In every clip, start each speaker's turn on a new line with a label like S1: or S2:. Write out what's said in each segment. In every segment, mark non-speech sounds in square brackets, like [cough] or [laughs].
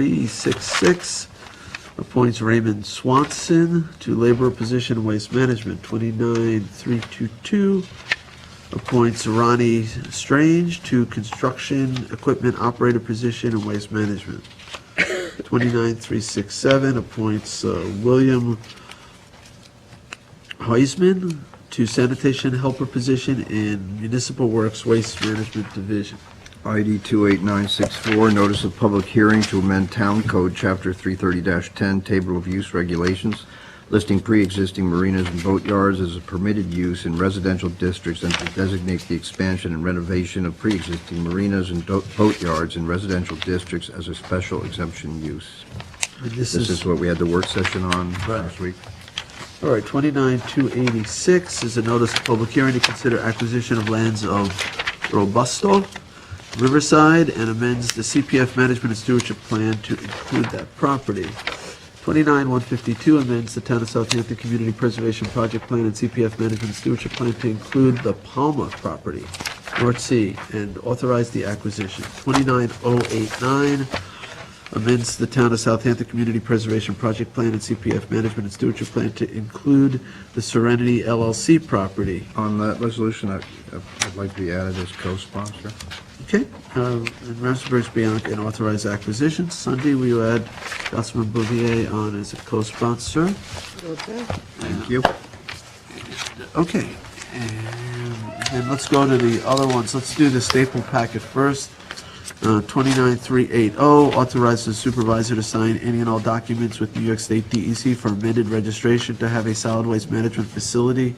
S1: 29366, appoints Raymond Swanson to labor position waste management. 29322, appoints Ronnie Strange to construction equipment operator position in waste management. 29367, appoints uh, William Heisman to sanitation helper position in municipal works waste management division.
S2: ID 28964, notice of public hearing to amend Town Code, Chapter 330-10, Table of Use Regulations, listing pre-existing marinas and boatyards as a permitted use in residential districts and to designate the expansion and renovation of pre-existing marinas and do- boatyards in residential districts as a special exemption use.
S1: And this
S2: This
S1: is,
S2: is what we had the work session on
S1: Right.
S2: last week.
S1: all right, 29286 is a notice of public hearing to consider acquisition of lands of Robusto Riverside and amends the CPF management and stewardship plan to include that property. 29152 amends the Town of Southampton Community Preservation Project Plan and CPF management and stewardship plan to include the Palma property, North Sea, and authorize the acquisition. 29089 amends the Town of Southampton Community Preservation Project Plan and CPF Management and Stewardship Plan to include the Serenity LLC property.
S2: On that resolution, I- I'd like to be added as co-sponsor.
S1: Okay, uh, and Ramsberg's Bianca and authorized acquisition. Sunday, we will add Councilman Bouvier on as a co-sponsor.
S2: Thank you.
S1: Okay, and then let's go to the other ones. Let's do the staple packet first. Uh, 29380, oh, authorize the supervisor to sign any and all documents with New York State DEC for amended registration to have a solid waste management facility,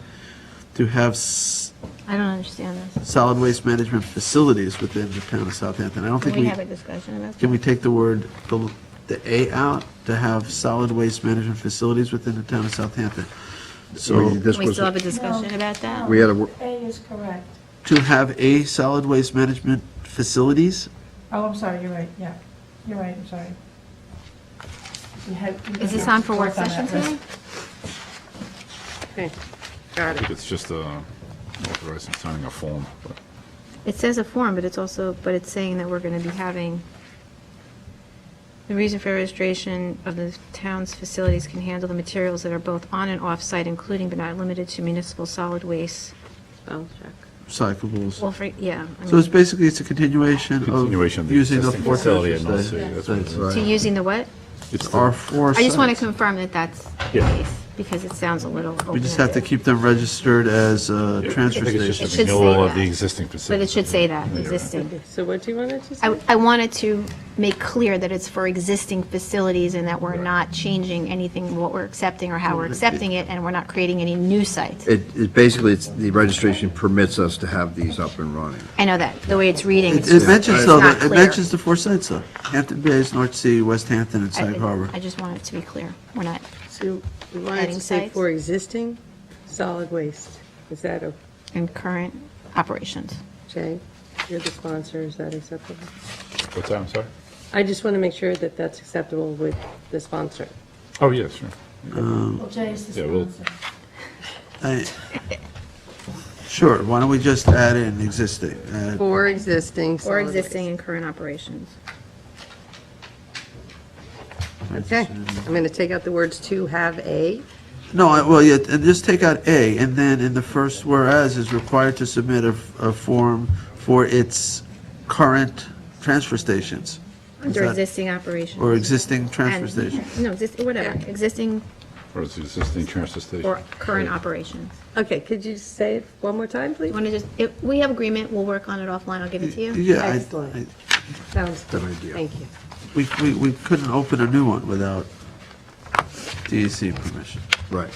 S1: to have s-
S3: I don't understand this.
S1: solid waste management facilities within the town of Southampton. I don't
S3: Can
S1: think
S3: we
S1: we,
S3: have a discussion about
S1: can we
S3: that?
S1: take the word, the the A out, to have solid waste management facilities within the town of Southampton? So.
S2: We- this
S3: Can we
S2: was-
S3: still have a discussion about that?
S2: We had a, wor-
S4: A is correct.
S1: to have a solid waste management facilities?
S4: Oh, I'm sorry, you're right, yeah. You're right, I'm sorry. We had- we
S3: Is this
S4: had
S3: on for work
S4: worked on
S3: session
S4: that.
S3: today?
S5: Okay, got it.
S6: It's just uh, authorizing signing a form, but
S3: It says a form, but it's also, but it's saying that we're going to be having, the reason for registration of the town's facilities can handle the materials that are both on and off-site, including but not limited to municipal solid waste.
S5: Spell check.
S1: Recyclables.
S3: Well, for, yeah. I
S1: So it's
S3: mean,
S1: basically, it's a continuation of
S6: continuation of the
S1: using the
S6: existing
S1: four
S6: facility
S1: township
S6: at North Sea. that's what it
S1: sites.
S6: is.
S3: To using the what?
S6: It's the-
S1: Our four
S3: I just want to
S1: sites.
S3: confirm that that's the
S6: Yeah.
S3: case, because it sounds a little
S1: We just have to
S3: open-ended.
S1: keep them registered as uh,
S6: I
S1: transfer
S6: think it's
S1: stations.
S6: just
S3: It
S6: a
S3: should say
S6: renewal of
S3: that.
S6: the existing facility.
S3: But it should say that,
S6: Yeah.
S3: existing.
S5: So what do you want it to say?
S3: I, I wanted to make clear that it's for existing facilities and that we're
S6: Right.
S3: not changing anything, what we're accepting or how we're accepting it, and we're not creating any new sites.
S2: it, it basically, it's, the registration permits us to have these up and running.
S3: I know that, the way it's reading.
S1: It it mentions
S3: it's
S1: though,
S3: not
S1: that- it
S3: clear.
S1: mentions the four sites though. Hampton Bays, North Sea, West Hampton, and
S3: I-
S1: Sag Harbor.
S3: I just want it to be clear. We're not,
S5: So we want it
S3: Adding
S5: to say
S3: sites?
S5: for existing solid waste. Is that
S3: in current operations.
S5: okay? You're the sponsor, is that acceptable?
S6: What's that, I'm sorry?
S5: I just want to make sure that that's acceptable with the sponsor.
S6: Oh, yes, sure.
S4: Well, Jay is the
S6: Yeah, we'll-
S4: sponsor.
S1: I- Sure, why don't we just add in existing? add-
S5: For existing solid
S3: Or
S5: waste.
S3: existing in current operations.
S5: Okay, I'm going to take out the words "to have a."
S1: No, I- well, yeah, and just take out A, and then in the first whereas is required to submit a, a form for its current transfer stations. Is
S3: Under
S1: that-
S3: existing operations.
S1: Or existing transfer
S3: And- [laughs]
S1: stations.
S3: No, exist- whatever, existing
S6: Or it's existing transfer station.
S3: or current operations.
S5: Okay, could you say it one more time, please?
S3: Want to just, if we have agreement, we'll work on it offline, I'll give it to you.
S1: Yeah, I-
S5: Excellent.
S1: I,
S5: Sounds
S2: Good idea.
S5: Thank you.
S1: we, we, we couldn't open a new one without DEC permission.
S2: Right.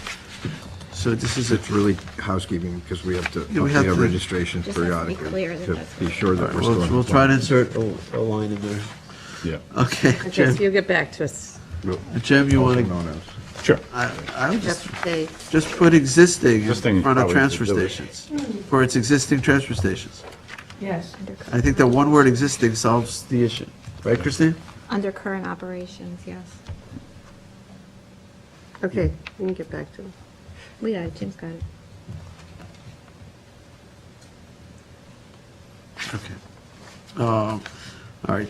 S1: So this is a,
S2: It's really housekeeping because we have to,
S1: Yeah, we
S2: we
S1: have
S2: have
S1: to-
S2: registrations
S3: Just has to be
S2: periodically
S3: clear that
S2: to
S3: that's
S2: be
S3: what-
S2: sure that we're
S1: we'll,
S2: still.
S1: we'll try to insert a, a line in there.
S6: Yeah,
S1: Okay,
S5: Okay, so
S1: Jim,
S5: you'll get back to us.
S1: Jim, you want to,
S2: Known as.
S6: sure.
S1: I, I would just,
S5: Update.
S1: just put existing
S6: Existing
S1: in front of
S6: probably
S1: transfer
S6: should do it.
S1: stations, for its existing transfer stations.
S4: Yes.
S1: I think that one word existing solves the issue. Right, Christine?
S3: Under current operations, yes.
S5: Okay, we can get back to it.
S3: We got it, Jim's got it.
S1: Okay. Um, Uh, All right,